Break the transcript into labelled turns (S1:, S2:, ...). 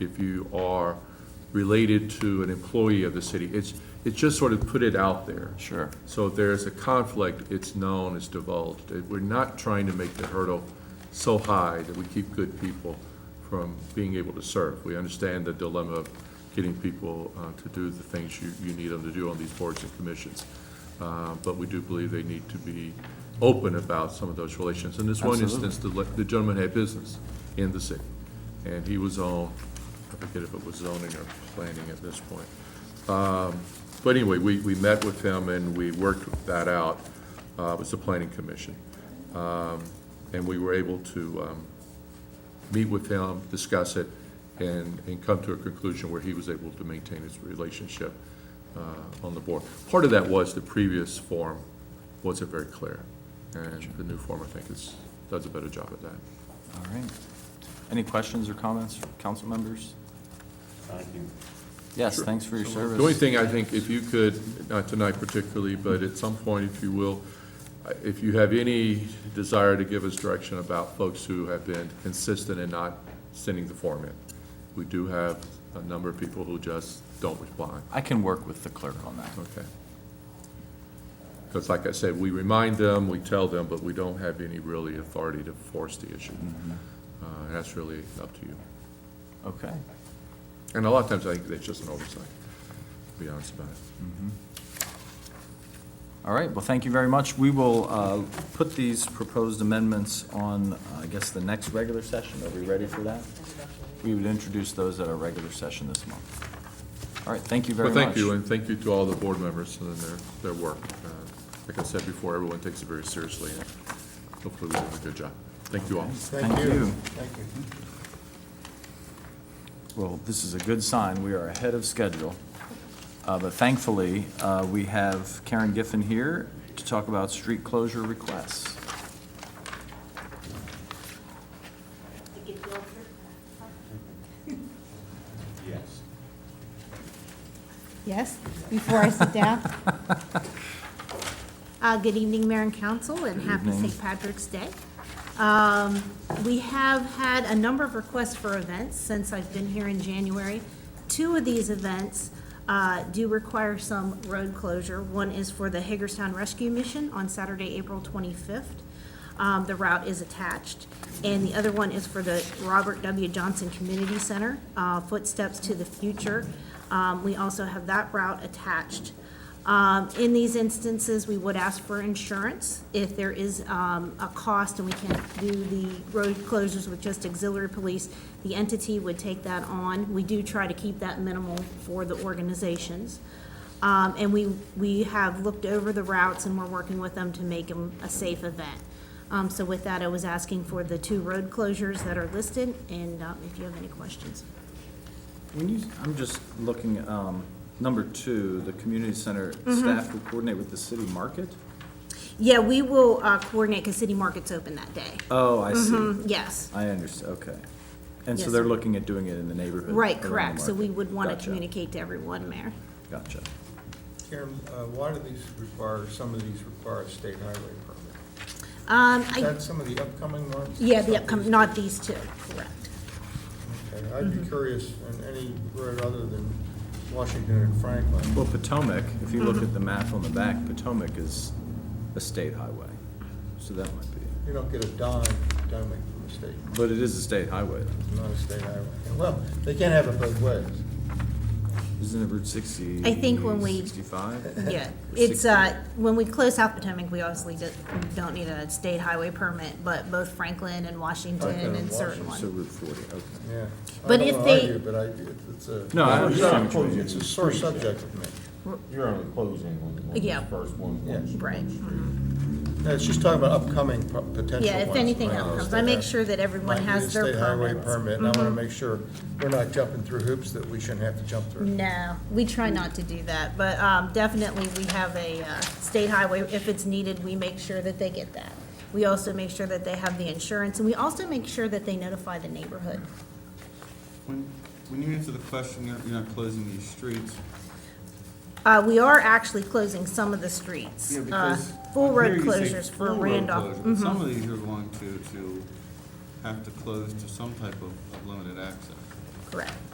S1: if you are related to an employee of the city. It's, it's just sort of put it out there.
S2: Sure.
S1: So if there's a conflict, it's known, it's divulged. It- We're not trying to make the hurdle so high that we keep good people from being able to serve. We understand the dilemma of getting people uh, to do the things you, you need them to do on these boards and commissions. Uh, But we do believe they need to be open about some of those relations. In this one
S2: Absolutely.
S1: instance, the le- the gentleman had business in the city, and he was on, I forget if it was zoning or planning at this point. But anyway, we, we met with him and we worked that out. Uh, it was the planning commission. Um, and we were able to, um, meet with him, discuss it, and, and come to a conclusion where he was able to maintain his relationship, uh, on the board. Part of that was the previous form wasn't very clear, and the new form, I think, is, does a better job at that.
S2: All right. Any questions or comments, from council members? Yes, thanks for your service.
S1: The only thing, I think, if you could, not tonight particularly, but at some point, if you will, uh, if you have any desire to give us direction about folks who have been consistent in not sending the form in. We do have a number of people who just don't respond,
S2: I can work with the clerk on that.
S1: okay? Because like I said, we remind them, we tell them, but we don't have any really authority to force the issue. Uh, and That's really up to you.
S2: Okay.
S1: And a lot of times, I think that's just an oversight, to be honest about it.
S2: All right, well, thank you very much. We will uh, put these proposed amendments on, uh, I guess, the next regular session. Are we ready for that? We would introduce those at our regular session this month. All right, thank you very
S1: Well,
S2: much.
S1: thank you, and thank you to all the board members and their, their work. Uh, Like I said before, everyone takes it very seriously, and hopefully we do a good job. Thank you all.
S2: Thank you.
S3: Thank you.
S2: Well, this is a good sign. We are ahead of schedule. Uh, But thankfully, uh, we have Karen Giffen here to talk about street closure requests.
S4: Yes, before I sit down. Uh, Good evening, Mayor and Council, and
S2: Good
S4: happy
S2: evening.
S4: St. Patrick's Day. Um, We have had a number of requests for events since I've been here in January. Two of these events uh, do require some road closure. One is for the Hagerstown Rescue Mission on Saturday, April 25th. Um, The route is attached. And the other one is for the Robert W. Johnson Community Center, uh, Footsteps to the Future. Um, We also have that route attached. Um, In these instances, we would ask for insurance if there is um, a cost and we can't do the road closures with just auxiliary police. The entity would take that on. We do try to keep that minimal for the organizations. Um, And we, we have looked over the routes and we're working with them to make them a safe event. Um, So with that, I was asking for the two road closures that are listed and um, if you have any questions.
S2: When you, I'm just looking, um, number two, the community center
S4: Mm-hmm.
S2: staff will coordinate with the city market?
S4: Yeah, we will uh, coordinate because City Market's open that day.
S2: Oh, I see.
S4: Yes.
S2: I understand, okay. And so
S4: Mm-hmm. Yes.
S2: they're looking at doing it in the neighborhood?
S4: Right,
S2: around the
S4: correct, so we
S2: market.
S4: would want to
S2: Gotcha,
S4: communicate to everyone, Mayor.
S2: Gotcha.
S3: Karen, uh, why do these require, some of these require a state highway permit?
S4: Um,
S3: Is
S4: I,
S3: that some of the upcoming ones?
S4: yeah, the upcoming, not these two, correct.
S3: Okay, I'd
S4: Mm-hmm.
S3: be curious on any road other than Washington and Franklin.
S2: Well, Potomac, if you
S4: Mm-hmm.
S2: look at the map on the back, Potomac is a state highway, so that might be.
S3: You don't get a dime, dime from the state,
S2: But it is a state highway,
S3: not a state highway. Well, they can't have it both ways.
S2: isn't it Route sixty?
S4: I think when we-
S2: Sixty-five?
S4: Yeah, it's, uh, when we close South Potomac, we obviously do- don't need a state highway permit, but both Franklin and Washington
S3: Franklin and
S4: and certain
S2: So
S4: ones.
S2: Route forty, okay.
S3: Yeah. I
S4: But
S3: don't
S4: if
S3: wanna
S4: they-
S3: argue, But I, it's- it's a.
S2: No, I understand what you mean.
S3: It's a sore subject with me.
S5: You're only closing on on
S4: Yeah.
S5: the first one.
S3: Yeah.
S4: Right.
S3: No, she's talking about upcoming pro- potential ones.
S4: Yeah, if anything
S3: Right.
S4: else comes, I make sure that everyone
S3: Might need a
S4: has their
S3: state highway
S4: permits. Mm-hmm.
S3: Permit, and I wanna make sure we're not jumping through hoops that we shouldn't have to jump through.
S4: No, we try not to do that, but, um, definitely we have a, uh, state highway, if it's needed, we make sure that they get that. We also make sure that they have the insurance, and we also make sure that they notify the neighborhood.
S6: When, when you answer the question, you're, you're not closing these streets.
S4: Uh, we are actually closing some of the streets. Uh, Full
S6: I
S4: road
S6: hear you say
S4: closures for
S6: full road
S4: Randolph. Mm-hmm.
S6: closures, but Some of these are going to, to have to close to some type of, of limited access.
S4: Correct.